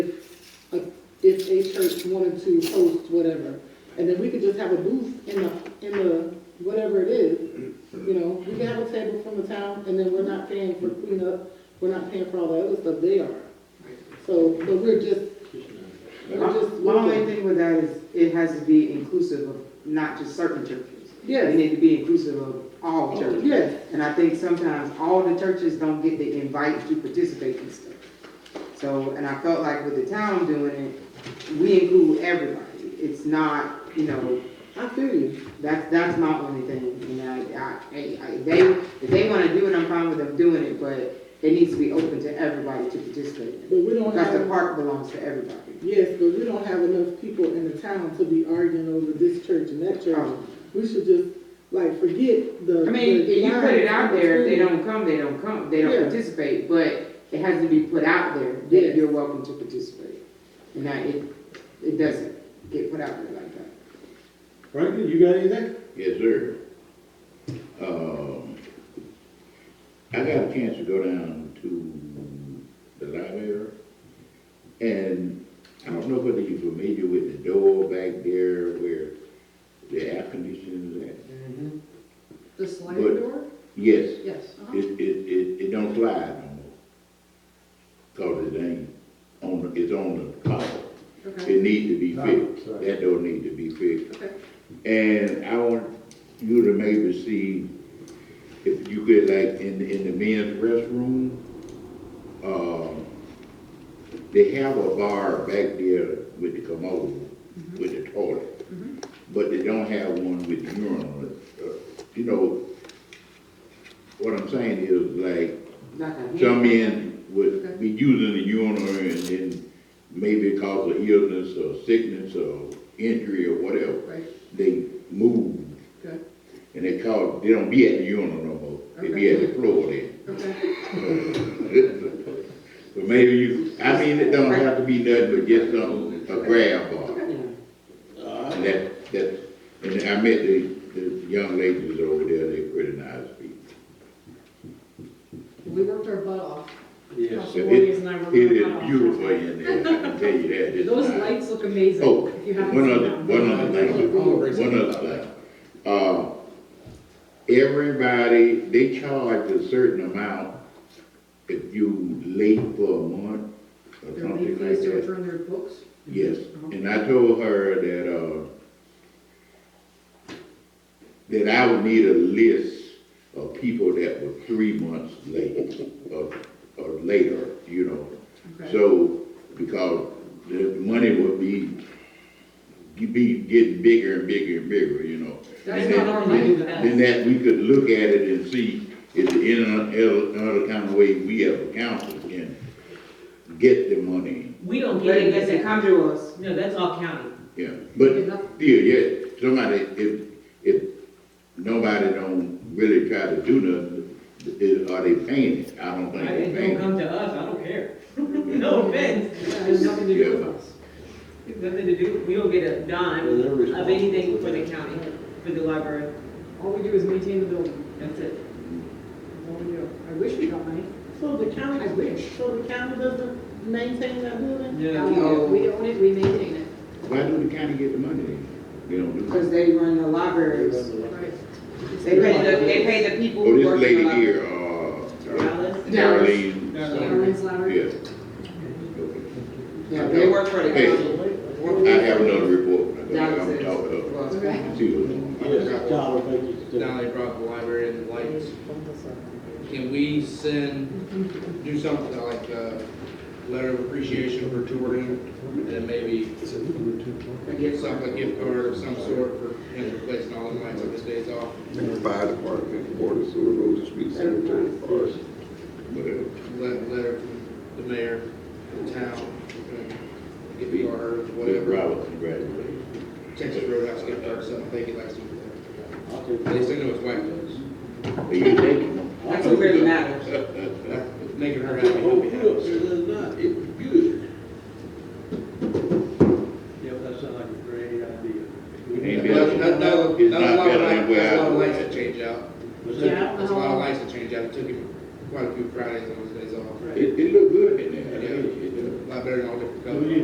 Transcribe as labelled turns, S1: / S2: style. S1: a church wanted to host whatever, and then we could just have a booth in the, in the, whatever it is, you know, we can have a table from the town, and then we're not paying for cleanup, we're not paying for all the other stuff, they are. So, but we're just, we're just
S2: My only
S1: looking,
S2: thing with that is, it has to be inclusive of not just certain churches. It
S1: yes,
S2: need to be inclusive of all churches.
S1: yes,
S2: And I think sometimes all the churches don't get the invite to participate in stuff. So, and I felt like with the town doing it, we include everybody. It's not, you know,
S1: I feel you,
S2: that's, that's my only thing. And I, I, I, they, if they wanna do it, I'm fine with them doing it, but it needs to be open to everybody to participate.
S1: but we don't
S2: Because the
S1: have,
S2: park belongs to everybody.
S1: yes, but we don't have enough people in the town to be arguing over this church and that church.
S2: Um,
S1: We should just, like, forget the.
S2: I mean, if
S1: the
S2: you put it out there, if they
S1: line
S2: don't come, they don't come, they don't
S1: Yeah.
S2: participate, but it has to be put out there
S1: Yes.
S2: that you're welcome to participate. And that it, it doesn't get put out there like that.
S3: Franklin, you got anything?
S4: Yes, sir. Um, I got a chance to go down to the library, and I don't know whether you're familiar with the door back there where the air conditioning is at.
S2: Mm-hmm.
S5: The sliding
S4: But-
S5: door?
S4: Yes,
S5: Yes. uh-huh.
S4: it, it, it, it don't slide no more. Cause it ain't on, it's on the collar.
S5: Okay,
S4: It needs to be
S3: No,
S4: fixed.
S3: sorry.
S4: That door needs to be fixed.
S5: okay.
S4: And I want you to maybe see if you could like in, in the men's restroom, um, they have a bar back there with the commode, with the toilet. But they don't have one with the urinal. Uh, You know, what I'm saying is like,
S2: Like a hand-
S4: some men would be using the urinal and then maybe cause of illness or sickness or injury or whatever
S5: Right,
S4: they move
S5: good,
S4: and they call, they don't be at the urinal no more. They be at the floor then.
S5: okay.
S4: But maybe you, I mean, it don't have to be nothing but just something, a grab bar.
S2: Yeah.
S4: And that, that, and I met the, the young ladies over there, they pretty nice people.
S5: We worked our butt off.
S3: Yes.
S5: Council Warriors and I worked our
S4: It
S5: butt
S4: is
S5: off.
S4: beautiful in there, I can tell you that. It's
S5: Those
S4: nice.
S5: lights look amazing,
S4: Oh,
S5: if you haven't
S4: one
S5: seen
S4: other-
S5: them.
S4: one other thing, one other thing. Uh, everybody, they charge a certain amount if you late for a month or
S5: Their late
S4: something
S5: fees
S4: like
S5: to
S4: that.
S5: return their books.
S4: Yes,
S5: Uh-huh.
S4: and I told her that, uh, that I would need a list of people that were three months late or, or later, you know.
S5: Okay.
S4: So, because the money will be, be getting bigger and bigger and bigger, you know.
S5: That's
S4: And
S5: not
S4: then-
S5: our money, that is.
S4: Then that, we could look at it and see if in another, another kind of way we as a council can get the money,
S6: We don't
S2: But
S6: get
S2: it
S6: it,
S2: doesn't
S6: that's,
S2: come to us.
S6: no, that's all county.
S4: yeah. But
S5: Enough.
S4: still, yeah, somebody, if, if nobody don't really try to do nothing, is- are they paying it? I don't think
S6: Like,
S4: they're
S6: it
S4: paying it.
S6: don't come to us, I don't care. No offense,
S5: Yeah,
S6: it has nothing to do
S4: Yeah.
S6: with us. It's nothing to do, we don't get a dime of anything for the county, for the library,
S5: All we do is maintain the building,
S6: that's it.
S5: that's all we do. I wish we got money.
S1: So the county,
S5: I wish.
S1: so the county doesn't maintain that building?
S6: No,
S2: No.
S5: Uh, We own it, we maintain it.
S4: Why do the county get the money then? They don't do it.
S2: Because they run the libraries.
S5: Right.
S2: They pay the, they pay the people
S4: Oh,
S2: who
S4: this
S2: work in the
S4: lady
S2: library.
S4: here, uh,
S6: Dallas?
S4: Darlene.
S5: Darlene's library.
S4: Yeah.
S2: Yeah, they work for the
S4: Hey.
S2: county.
S4: I have another report. I
S2: That
S4: gotta-
S2: was
S4: I'm
S2: it.
S4: talking
S2: Well,
S5: Okay.
S4: up. See what's going on.
S3: Yes, Tyler, thank you.
S7: Now they brought the library and the lights. Can we send, do something like a letter of appreciation for touring and then maybe get some, a gift card of some sort for, you know, replacing all the lights on this day's off?
S8: Fire department, board of sewer, roads and streets, cemetery, forest.
S4: Whatever.
S7: Let, letter from the mayor, the town, uh, gift card,
S4: Whatever,
S7: whatever.
S4: Robert, congratulations.
S7: Texas Roadhouse gift card, something they could like some.
S3: I'll take
S7: They
S3: this.
S7: send it with white clothes.
S4: Are you taking?
S2: That's what really matters.
S7: Making her happy, he'll
S3: Oh,
S7: be happy.
S8: It was good.
S3: Yeah, that sounds like a great
S4: Ain't
S3: idea.
S4: been-
S7: No, no, no,
S4: It's
S7: no,
S4: not
S7: a lot
S4: better
S7: of
S4: than
S7: lights,
S4: where
S7: that's a
S4: I
S7: lot of
S4: was
S7: lights
S4: at.
S7: to change out.
S3: What's that?
S5: Yeah, I
S7: That's
S5: don't
S7: a lot of
S5: know.
S7: lights to change out, it took him quite a few Fridays and those days off.
S4: It, it looked good in there. Yeah, it did.
S7: A lot better than all different
S3: Do we
S7: colors.
S3: need